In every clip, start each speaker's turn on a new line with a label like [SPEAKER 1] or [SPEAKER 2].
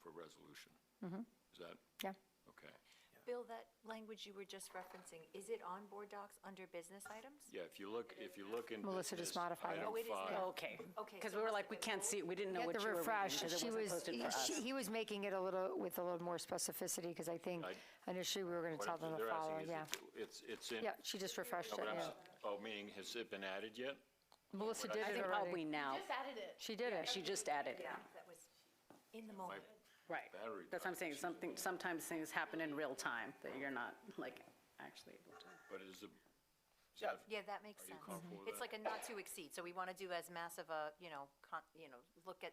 [SPEAKER 1] for resolution. Is that,
[SPEAKER 2] Mm-hmm. Yeah.
[SPEAKER 1] okay.
[SPEAKER 3] Bill, that language you were just referencing, is it on board docs under business items?
[SPEAKER 1] Yeah, if you look, if you look in.
[SPEAKER 2] Melissa just
[SPEAKER 1] this
[SPEAKER 2] modified it.
[SPEAKER 1] item
[SPEAKER 3] Oh, it is
[SPEAKER 1] five-
[SPEAKER 3] now.
[SPEAKER 4] Okay.
[SPEAKER 3] Okay,
[SPEAKER 4] Because
[SPEAKER 3] so
[SPEAKER 4] we were
[SPEAKER 3] that's
[SPEAKER 4] like, we can't see, it. we didn't know
[SPEAKER 2] At
[SPEAKER 4] what
[SPEAKER 2] the
[SPEAKER 4] you were reading
[SPEAKER 2] refresh,
[SPEAKER 4] because
[SPEAKER 2] she
[SPEAKER 4] it wasn't
[SPEAKER 2] was,
[SPEAKER 4] posted for
[SPEAKER 2] she-
[SPEAKER 4] us.
[SPEAKER 2] he was making it a little, with a little more specificity, because I think
[SPEAKER 1] I-
[SPEAKER 2] initially we were going to
[SPEAKER 1] what
[SPEAKER 2] tell
[SPEAKER 1] I'm-
[SPEAKER 2] them to
[SPEAKER 1] they're asking
[SPEAKER 2] follow,
[SPEAKER 1] is
[SPEAKER 2] yeah.
[SPEAKER 1] if it- It's, it's in.
[SPEAKER 2] Yeah, she just refreshed
[SPEAKER 1] No, but
[SPEAKER 2] it,
[SPEAKER 1] I'm
[SPEAKER 2] yeah.
[SPEAKER 1] s- Oh, meaning, has it been added yet?
[SPEAKER 2] Melissa
[SPEAKER 1] what I
[SPEAKER 2] did
[SPEAKER 1] said.
[SPEAKER 2] it
[SPEAKER 4] I think probably
[SPEAKER 2] already.
[SPEAKER 4] now.
[SPEAKER 5] Just added it.
[SPEAKER 2] She did it.
[SPEAKER 4] She just added it.
[SPEAKER 3] Yeah, that was in the moment.
[SPEAKER 4] Right.
[SPEAKER 1] Battery
[SPEAKER 4] That's what I'm
[SPEAKER 1] died.
[SPEAKER 4] saying, something, sometimes things happen in real time that you're not like actually able to.
[SPEAKER 1] But is the,
[SPEAKER 3] Yeah, that makes
[SPEAKER 1] Are you
[SPEAKER 3] sense.
[SPEAKER 1] comfortable with
[SPEAKER 3] It's
[SPEAKER 1] that?
[SPEAKER 3] like a not to exceed, so we want to do as massive a, you know, con, you know, look at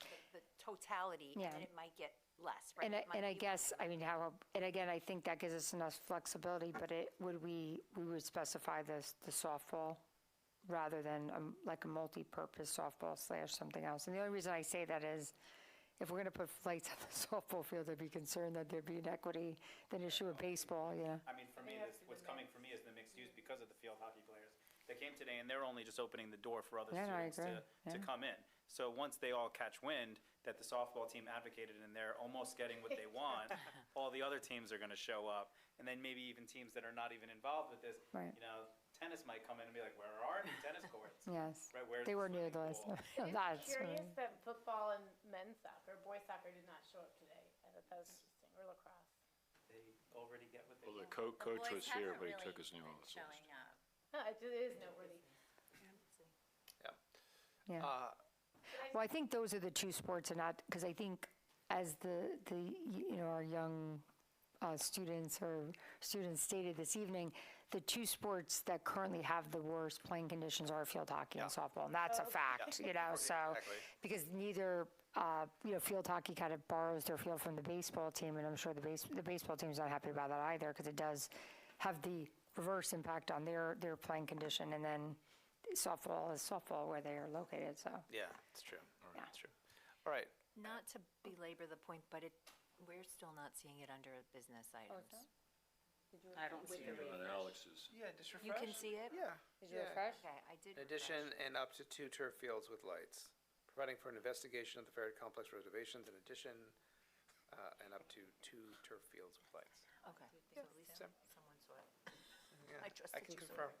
[SPEAKER 3] the- the totality, and
[SPEAKER 2] Yeah.
[SPEAKER 3] then it might get less, right?
[SPEAKER 2] And I,
[SPEAKER 3] It might
[SPEAKER 2] and I
[SPEAKER 3] be
[SPEAKER 2] guess,
[SPEAKER 3] less.
[SPEAKER 2] I mean, how, and again, I think that gives us enough flexibility, but it, would we, we would specify this, the softball rather than um, like a multi-purpose softball slash something else. And the only reason I say that is if we're going to put flights on the softball field, I'd be concerned that there'd be inequity, then issue of baseball, you know?
[SPEAKER 6] I mean, for me, this, what's coming for me is the mixed use because of the field hockey players. They came today and they're only just opening the door for other
[SPEAKER 2] Yeah, no, I
[SPEAKER 6] students to,
[SPEAKER 2] agree,
[SPEAKER 6] to
[SPEAKER 2] yeah.
[SPEAKER 6] come in. So once they all catch wind that the softball team advocated and they're almost getting what they want, all the other teams are gonna show up. And then maybe even teams that are not even involved with this,
[SPEAKER 2] Right.
[SPEAKER 6] you know, tennis might come in and be like, where are the tennis courts?
[SPEAKER 2] Yes.
[SPEAKER 6] Right, where's
[SPEAKER 2] They
[SPEAKER 6] the
[SPEAKER 2] were near those.
[SPEAKER 6] swimming pool?
[SPEAKER 5] I'm
[SPEAKER 2] That's right.
[SPEAKER 5] curious that football and men's soccer, boys soccer did not show up today. I thought that was interesting, or lacrosse.
[SPEAKER 6] They already get what they
[SPEAKER 1] well, the
[SPEAKER 6] want.
[SPEAKER 1] co- coach was here, but he took his
[SPEAKER 7] new
[SPEAKER 1] name off. the list.
[SPEAKER 5] Huh, It it is noteworthy.
[SPEAKER 2] Yeah. Well, I think those are the two sports and not, because I think as the, the, y- you know, our young uh, students or students stated this evening, the two sports that currently have the worst playing conditions are field hockey and softball, and that's a fact, you know, so.
[SPEAKER 6] Exactly.
[SPEAKER 2] Because neither, uh, you know, field hockey kind of borrows their field from the baseball team, and I'm sure the base, the baseball team's not happy about that either, because it does have the reverse impact on their, their playing condition, and then softball is softball where they are located, so.
[SPEAKER 8] Yeah, it's true. All right, it's true. All right.
[SPEAKER 3] Not to belabor the point, but it, we're still not seeing it under business
[SPEAKER 2] Oh,
[SPEAKER 3] items.
[SPEAKER 4] I don't see it.
[SPEAKER 1] On Uh, Alex's.
[SPEAKER 8] Yeah, just refresh.
[SPEAKER 3] You can see it?
[SPEAKER 8] Yeah. yeah.
[SPEAKER 3] Okay, I did.
[SPEAKER 8] In addition,
[SPEAKER 3] refresh.
[SPEAKER 8] and up to two turf fields with lights, providing for an investigation of the ferret complex reservations. In addition, uh, and up to two turf fields with lights.
[SPEAKER 3] Okay, so at least
[SPEAKER 8] Yep.
[SPEAKER 3] someone saw it.
[SPEAKER 8] Yeah,
[SPEAKER 3] I trust that
[SPEAKER 8] can
[SPEAKER 3] you saw
[SPEAKER 8] confirm.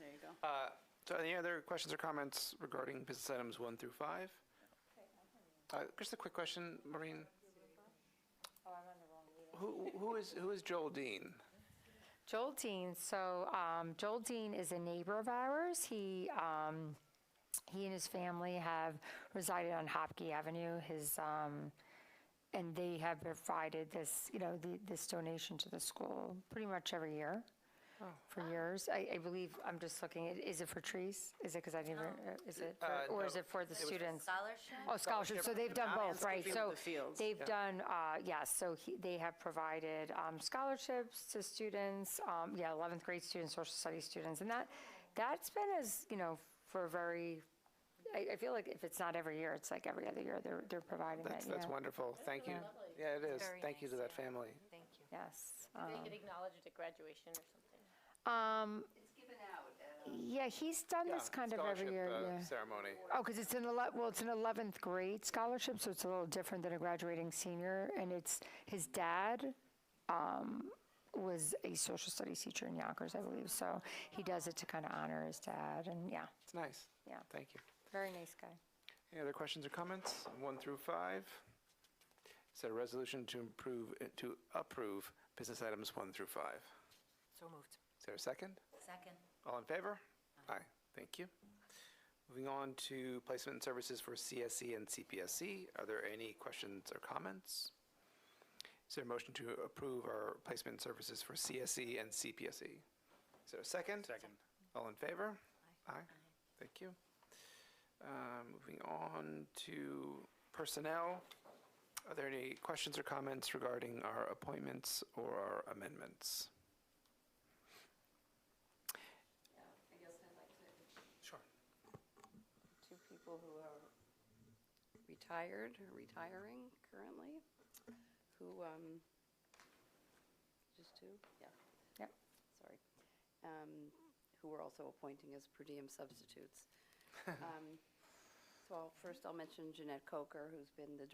[SPEAKER 4] There you go.
[SPEAKER 8] Uh, so, any other questions or comments regarding business items one through five? Uh, just a quick question, Maureen.
[SPEAKER 3] Oh,
[SPEAKER 8] Who, who is who is Joel Dean?
[SPEAKER 2] Joel Dean. So um, Joel Dean is a neighbor of ours. He um, he and his family have resided on Hopkey Avenue. His um, and they have provided this, you know, the, this donation to the school pretty much every year for years. I, I believe I'm just looking. At, is it for trees? Is it because I didn't? uh, Is it for,
[SPEAKER 8] Uh,
[SPEAKER 2] or is
[SPEAKER 8] no.
[SPEAKER 2] it for the students?
[SPEAKER 3] Scholarship?
[SPEAKER 2] Oh, scholarships, so they've done both, right?
[SPEAKER 4] Field
[SPEAKER 2] So
[SPEAKER 4] to fields.
[SPEAKER 2] they've done, uh, yes, so he- they have provided um, scholarships to students, um, yeah, 11th grade students, social studies students, and that, that's been as, you know, for a very, I, I feel like if it's not every year, it's like every other year, they're, they're providing that,
[SPEAKER 8] That's
[SPEAKER 2] you
[SPEAKER 8] that's
[SPEAKER 2] know?
[SPEAKER 8] wonderful. Thank you. Yeah, it is.
[SPEAKER 3] Very
[SPEAKER 8] Thank you to
[SPEAKER 3] nice,
[SPEAKER 8] that
[SPEAKER 3] yeah.
[SPEAKER 8] family.
[SPEAKER 3] Thank you.
[SPEAKER 2] Yes.
[SPEAKER 5] They get acknowledged at graduation or something.
[SPEAKER 2] Um,
[SPEAKER 7] It's given out uh, at a
[SPEAKER 2] yeah, he's done this
[SPEAKER 8] Yeah,
[SPEAKER 2] kind of every
[SPEAKER 8] scholarship,
[SPEAKER 2] year,
[SPEAKER 8] uh,
[SPEAKER 2] yeah.
[SPEAKER 8] Ceremony.
[SPEAKER 2] Oh, because it's an ele- well, it's an eleventh grade scholarship, so it's a little different than a graduating senior. And it's his dad um, was a social studies teacher in Yonkers, I believe. So he does it to kind of honor his dad, and yeah,
[SPEAKER 8] It's nice.
[SPEAKER 2] Yeah.
[SPEAKER 8] Thank you.
[SPEAKER 2] very nice guy.
[SPEAKER 8] Any other questions or comments? One through five. Is there a resolution to improve, uh, to approve business items one through five?
[SPEAKER 3] So moved.
[SPEAKER 8] Is there a second?
[SPEAKER 3] Second.
[SPEAKER 8] All in favor? Aye. Thank you. Moving on to placement and services for CSE and CPSC. E. Are there any questions or comments? Is there a motion to approve our placement and services for CSE and CPSE? E? Is there a second?
[SPEAKER 6] Second.
[SPEAKER 8] All in favor? Aye. Thank you. Uh, Moving on to personnel. Are there any questions or comments regarding our appointments or our amendments?
[SPEAKER 7] I guess I'd like to,
[SPEAKER 8] Sure.
[SPEAKER 7] two people who are retired, or retiring currently, who, um, just two? Yeah.
[SPEAKER 2] Yep.
[SPEAKER 7] Sorry. Um, Who we're also appointing as per diem substitutes. Um, So I'll- first I'll mention Jeanette Coker, who's been the